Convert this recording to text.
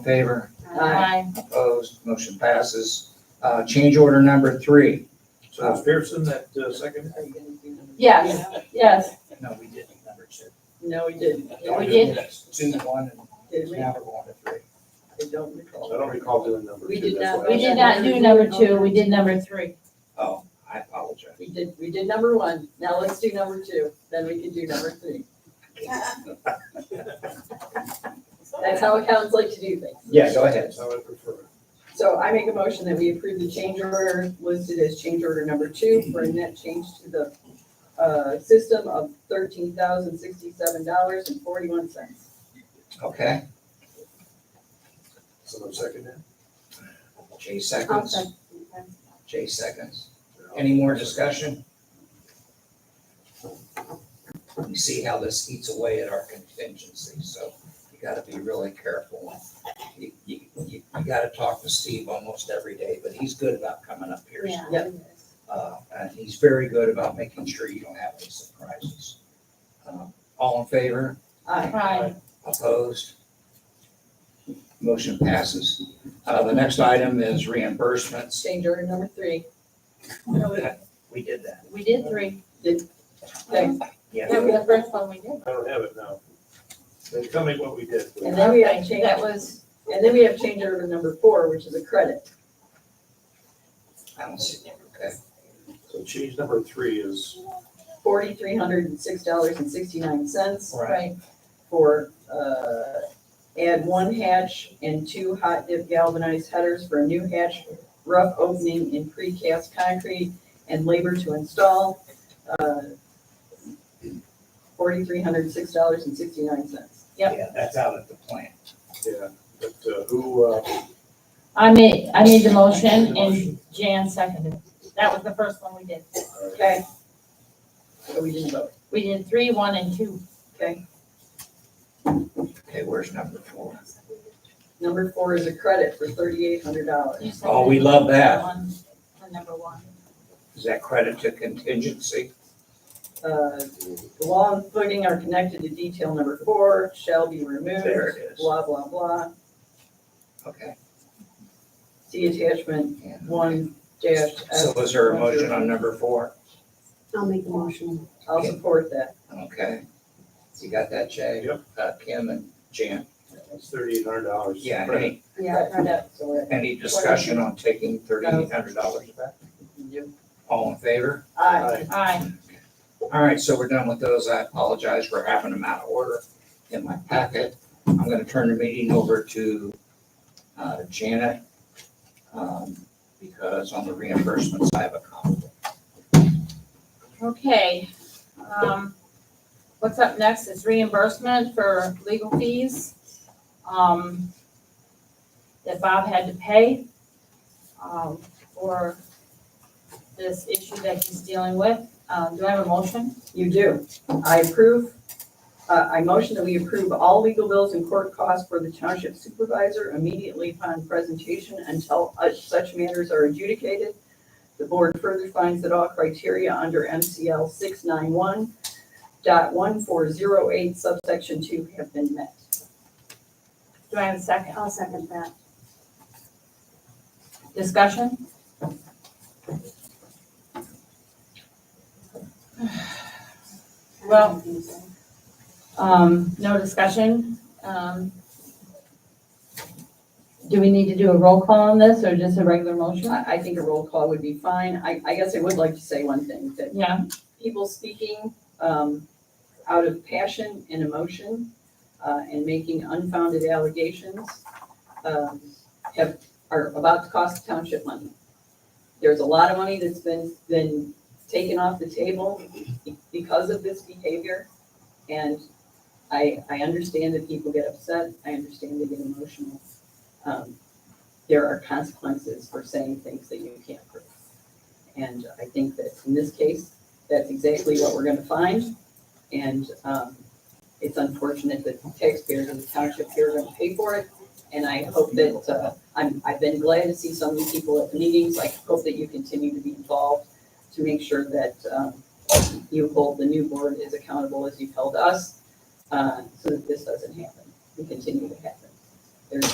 in favor? Aye. Opposed, motion passes. Uh, Change order number three. So McPherson, that uh, second? Yes, yes, No, we didn't, number two. No, we didn't. Yeah, we did. Yes, Two, one, Did and we? now we're going to three. I don't I recall. don't recall doing number We two. did that's not- why I we was- did not do number two, we did number three. Oh, I apologize. We did, we did number one. Now let's do number two, then we can do number three. That's how accountants like to do things. Yeah, go ahead. That's how I prefer. it. So I make a motion that we approve the change order listed as change order number two for a net change to the uh, system of thirteen thousand sixty-seven dollars and forty-one cents. Okay, Someone second that? Jay seconds, Jay seconds. Any more discussion? You see how this eats away at our contingency, so you gotta be really careful. You, you, you you gotta talk to Steve almost every day, but he's good about coming up here. so Uh, and he's very good about making sure you don't have any surprises. Uh, All in favor? Aye. Aye. Opposed? Motion passes. Uh, the next item is reimbursements. Change order number three. We did that. We did three. Thanks. That was the first one we did. I don't have it now. Then tell me what we did. please. And then we have change, That was, and then we have change order number four, which is a credit. I don't see, okay. So change number three is, forty-three hundred and six dollars and sixty-nine cents right, for, uh, add one hatch and two hot dip galvanized headers for a new hatch, rough opening in precast concrete and labor to install, uh, forty-three hundred and six dollars and sixty-nine cents. Yep. Yeah, that's out at the plant. yeah, but uh, who, uh, I made, I made the motion and Jan seconded. it. That was the first one we did. Okay? So we didn't vote, We did three, one, and two. okay? Okay, where's number four? Number four is a credit for thirty-eight hundred dollars. You Oh, we love that. One, for number one. Is that credit to contingency? Uh, The wall and footing are connected to detail number four, shall be removed. There it is. Blah, blah, blah. Okay. See attachment and- one dash So F. is there a motion on number four? I'll make the motion. I'll support that. Okay. You got that, Jay? Yep. Uh, Kim and Jan? it's thirty-eight hundred dollars. Yeah, any, Yeah, right. So we're- Any discussion on taking thirty-eight hundred dollars back? All in favor? Aye. Aye. All right, so we're done with those. I apologize for having them out of order in my packet. I'm gonna turn the meeting over to uh, Janet, um, because on the reimbursements, I have a conflict. Okay. Um, what's up next is reimbursement for legal fees, um, that Bob had to pay, um, for this issue that he's dealing with. Um, do I have a motion? You do. I approve, uh, I motion that we approve all legal bills and court costs for the township supervisor immediately upon presentation until us- such matters are adjudicated. The board further finds that all criteria under MCL six nine one dot one four zero eight subsection two have been met. Do I have a second? I'll second that. Discussion? Well- Um, no discussion, um. Do we need to do a roll call on this or just a regular motion? I, I think a roll call would be fine. I, I guess I would like to say one thing, that Yeah, people speaking um, out of passion and emotion uh, and making unfounded allegations um, have, are about to cost the township money. There's a lot of money that's been, been taken off the table because of this behavior. And I, I understand that people get upset, I understand they get emotional. Um, There are consequences for saying things that you can't prove. And I think that in this case, that's exactly what we're gonna find. And, um, it's unfortunate that taxpayers in the township here are gonna pay for it. And I hope that, uh, I'm, I've been glad to see so many people at the meetings. I hope that you continue to be involved to make sure that, um, you hold the new board as accountable as you've held us, uh, so that this doesn't happen and continue to happen.